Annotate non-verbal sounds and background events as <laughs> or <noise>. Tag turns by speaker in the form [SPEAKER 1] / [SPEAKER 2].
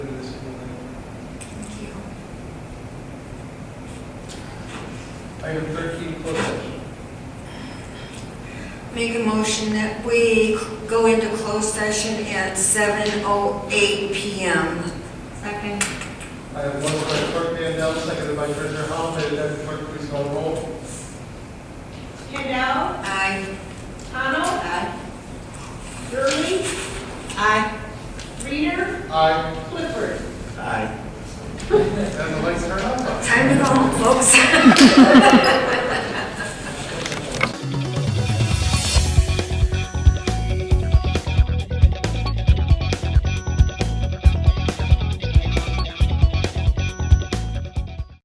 [SPEAKER 1] Item thirteen, closed session.
[SPEAKER 2] Make a motion that we go into closed session at 7:08 PM. Second.
[SPEAKER 1] I have one by Clerk Mandell, seconded by Treasurer Hall. May the deputy clerk please call roll.
[SPEAKER 3] Kendall,
[SPEAKER 2] Aye.
[SPEAKER 3] Connell,
[SPEAKER 2] Aye.
[SPEAKER 3] Gurley,
[SPEAKER 2] Aye.
[SPEAKER 3] Reader,
[SPEAKER 1] Aye.
[SPEAKER 3] Clifford.
[SPEAKER 1] And the lights turn off.
[SPEAKER 2] <laughs> Time to go home, folks.